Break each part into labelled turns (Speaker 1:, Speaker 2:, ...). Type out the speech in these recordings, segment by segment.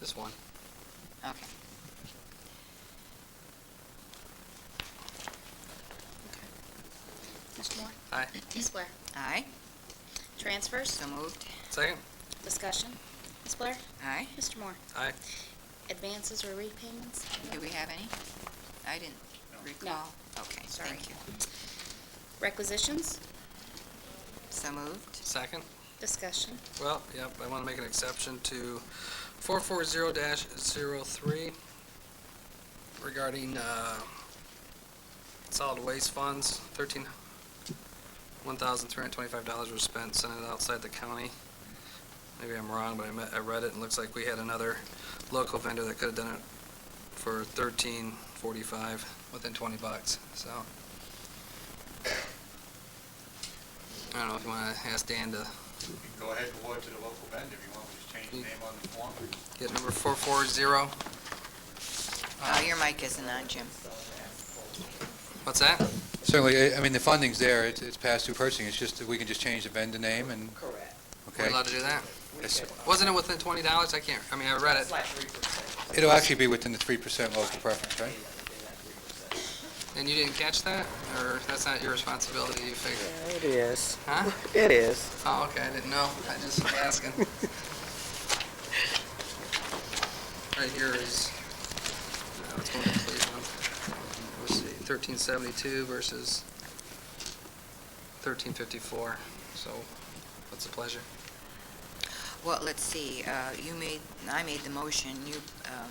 Speaker 1: Just one.
Speaker 2: Okay.
Speaker 3: Mr. Moore?
Speaker 1: Aye.
Speaker 3: Ms. Blair?
Speaker 2: Aye.
Speaker 3: Transfers?
Speaker 2: So moved.
Speaker 1: Second?
Speaker 3: Discussion? Ms. Blair?
Speaker 2: Aye.
Speaker 3: Mr. Moore?
Speaker 1: Aye.
Speaker 3: Advances or repayments?
Speaker 2: Do we have any? I didn't recall. Okay,
Speaker 3: Sorry.
Speaker 2: thank you.
Speaker 3: Requisitions?
Speaker 2: So moved.
Speaker 1: Second?
Speaker 3: Discussion?
Speaker 1: Well, yep, I want to make an exception to 440-03 regarding uh, solid waste funds, 13, $1,325 was spent sending it outside the county. Maybe I'm wrong, but I met- I read it, and it looks like we had another local vendor that could have done it for 1345 within 20 bucks, so. I don't know if you want to ask Dan to
Speaker 4: You can Go ahead and award to the local vendor if you want, we just change the name on the form.
Speaker 1: Get number 440,
Speaker 2: Oh, your mic isn't on, Jim.
Speaker 1: what's that?
Speaker 5: Certainly, I I mean, the funding's there, it's it's past due purchasing, it's just that we can just change the vendor name and,
Speaker 6: Correct.
Speaker 1: We're
Speaker 5: okay?
Speaker 1: allowed to do that?
Speaker 5: Yes, sir.
Speaker 1: Wasn't it within $20? I can't, I mean, I read
Speaker 6: It's
Speaker 1: it,
Speaker 6: like three percent.
Speaker 5: It'll actually be within the 3% local preference, right?
Speaker 1: and you didn't catch that? Or that's not your responsibility, you figure?
Speaker 6: It is.
Speaker 1: Huh?
Speaker 6: It is.
Speaker 1: Oh, okay, I didn't know, I just was asking. Right here is, uh, no, it's going to Cleveland. Let's see, 1372 versus 1354, so what's the pleasure?
Speaker 2: Well, let's see, uh, you made, I made the motion, you um,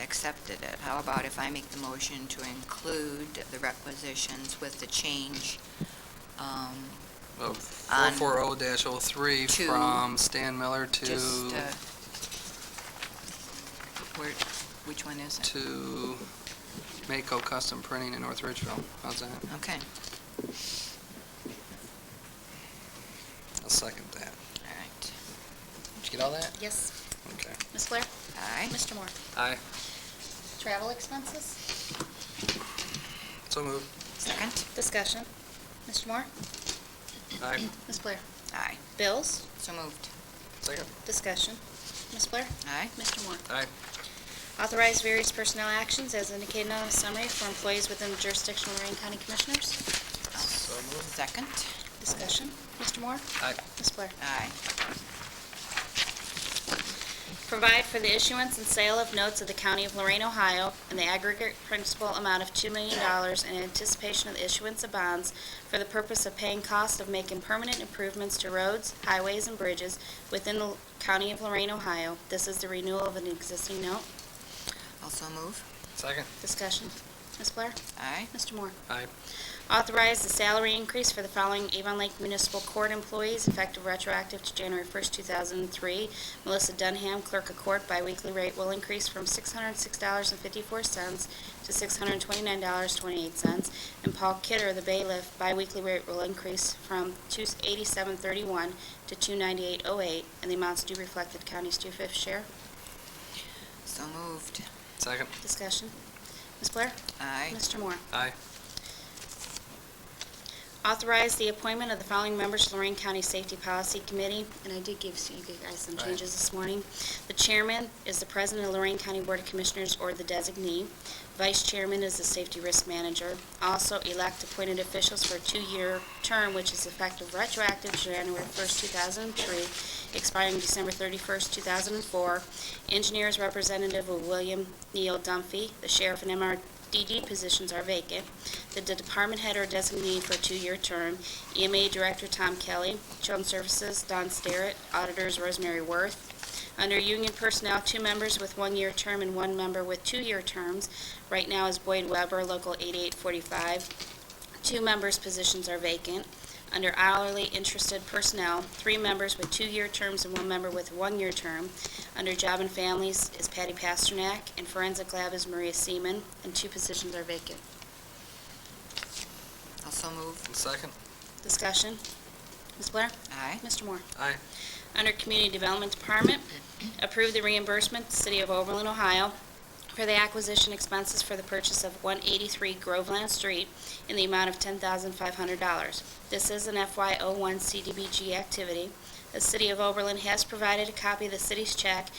Speaker 2: accepted it. How about if I make the motion to include the requisitions with the change um,
Speaker 1: Well,
Speaker 2: On-
Speaker 1: 440-03
Speaker 2: To-
Speaker 1: from Stan Miller to...
Speaker 2: Just, uh, where, which one is it?
Speaker 1: to Mako Custom Printing in North Ridgeville. How's that?
Speaker 2: Okay,
Speaker 1: I'll second that.
Speaker 2: all right.
Speaker 1: Did you get all that?
Speaker 3: Yes.
Speaker 1: Okay.
Speaker 3: Ms. Blair?
Speaker 2: Aye,
Speaker 3: Mr. Moore?
Speaker 1: Aye.
Speaker 3: Travel expenses?
Speaker 1: So moved.
Speaker 2: second?
Speaker 3: Discussion? Mr. Moore?
Speaker 1: Aye.
Speaker 3: Ms. Blair?
Speaker 2: Aye.
Speaker 3: Bills?
Speaker 2: So moved.
Speaker 1: Second.
Speaker 3: Discussion? Ms. Blair?
Speaker 2: Aye,
Speaker 3: Mr. Moore?
Speaker 1: Aye.
Speaker 3: Authorize various personnel actions as indicated on the summary for employees within the jurisdiction of Lorraine County Commissioners.
Speaker 1: So moved.
Speaker 2: second?
Speaker 3: Discussion? Mr. Moore?
Speaker 1: Aye.
Speaker 3: Ms. Blair?
Speaker 2: Aye.
Speaker 3: Provide for the issuance and sale of notes of the County of Lorraine, Ohio, in the aggregate principal amount of $2 million in anticipation of the issuance of bonds for the purpose of paying costs of making permanent improvements to roads, highways, and bridges within the County of Lorraine, Ohio. This is the renewal of an existing note.
Speaker 2: Also move?
Speaker 1: Second.
Speaker 3: Discussion. Ms. Blair?
Speaker 2: Aye.
Speaker 3: Mr. Moore?
Speaker 1: Aye.
Speaker 3: Authorize the salary increase for the following Avon Lake Municipal Court employees effective retroactive to January 1st, 2003. Melissa Dunham, Clerk of Court, biweekly rate will increase from $606.54 to $629.28. And Paul Kidder, the bailiff, biweekly rate will increase from $287.31 to $298.08, and the amounts do reflect the county's two-fifth share.
Speaker 2: So moved.
Speaker 1: Second.
Speaker 3: Discussion. Ms. Blair?
Speaker 2: Aye.
Speaker 3: Mr. Moore?
Speaker 1: Aye.
Speaker 3: Authorize the appointment of the following members to Lorraine County Safety Policy Committee, and I did give you guys some
Speaker 1: Right.
Speaker 3: changes this morning. The chairman is the president of Lorraine County Board of Commissioners or the designee. Vice chairman is the safety risk manager. Also elect appointed officials for a two-year term, which is effective retroactive to January 1st, 2003, expiring December 31st, 2004. Engineers representative of William Neal Dunphy. The sheriff and MRDD positions are vacant the de- department head or designee for a two-year term, EMA Director Tom Kelly, Children's Services Don Starrett, Auditors Rosemary Worth. Under union personnel, two members with one-year term and one member with two-year terms. Right now is Boyd Weber, Local 8845. Two members' positions are vacant. Under hourly interested personnel, three members with two-year terms and one member with one-year term. Under job and families is Patty Pasternak, and forensic lab is Maria Seaman, and two positions are vacant.
Speaker 2: Also moved.
Speaker 1: And second.
Speaker 3: Discussion. Ms. Blair?
Speaker 2: Aye.
Speaker 3: Mr. Moore?
Speaker 1: Aye.
Speaker 3: Under Community Development Department, approve the reimbursement to City of Overland, Ohio for the acquisition expenses for the purchase of 183 Groveland Street in the amount of $10,500. This is an FY01 CDBG activity. The City of Overland has provided a copy of the city's check